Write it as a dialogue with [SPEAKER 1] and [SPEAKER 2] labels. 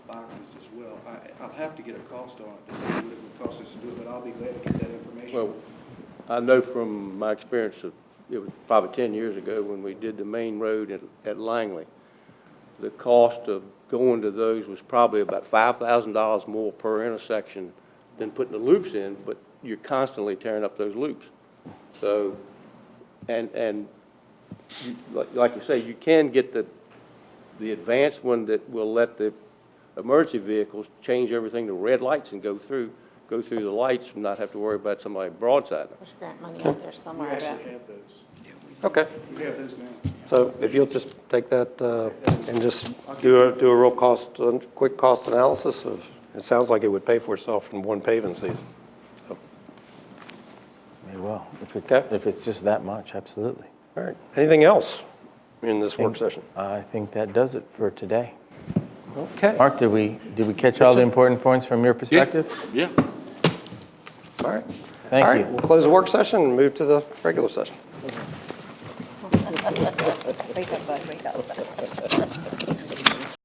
[SPEAKER 1] boxes as well. I, I'll have to get a cost on it to see what it would cost us to do it, but I'll be glad to get that information.
[SPEAKER 2] Well, I know from my experience of, it was probably ten years ago when we did the main road at, at Langley. The cost of going to those was probably about five thousand dollars more per intersection than putting the loops in, but you're constantly tearing up those loops. So, and, and you- like, like you say, you can get the, the advanced one that will let the emergency vehicles change everything to red lights and go through, go through the lights and not have to worry about somebody broadside them.
[SPEAKER 3] There's grant money out there
[SPEAKER 1] We
[SPEAKER 3] somewhere, I bet.
[SPEAKER 1] actually have those.
[SPEAKER 4] Okay,
[SPEAKER 1] We have those now.
[SPEAKER 4] so if you'll just take that uh, and just do a, do a real cost, uh, quick cost analysis of, it sounds like it would pay for itself in one paving season.
[SPEAKER 5] Very well. If it's,
[SPEAKER 4] Okay.
[SPEAKER 5] if it's just that much, absolutely.
[SPEAKER 4] All right, anything else in this work session?
[SPEAKER 5] I think that does it for today.
[SPEAKER 4] Okay, all
[SPEAKER 5] Mark, did we, did we catch all the important points from your perspective?
[SPEAKER 6] Yeah.
[SPEAKER 4] right. All
[SPEAKER 5] Thank
[SPEAKER 4] right,
[SPEAKER 5] you.
[SPEAKER 4] we'll close the work session and move to the regular session.
[SPEAKER 3] Wake up, bud, wake up.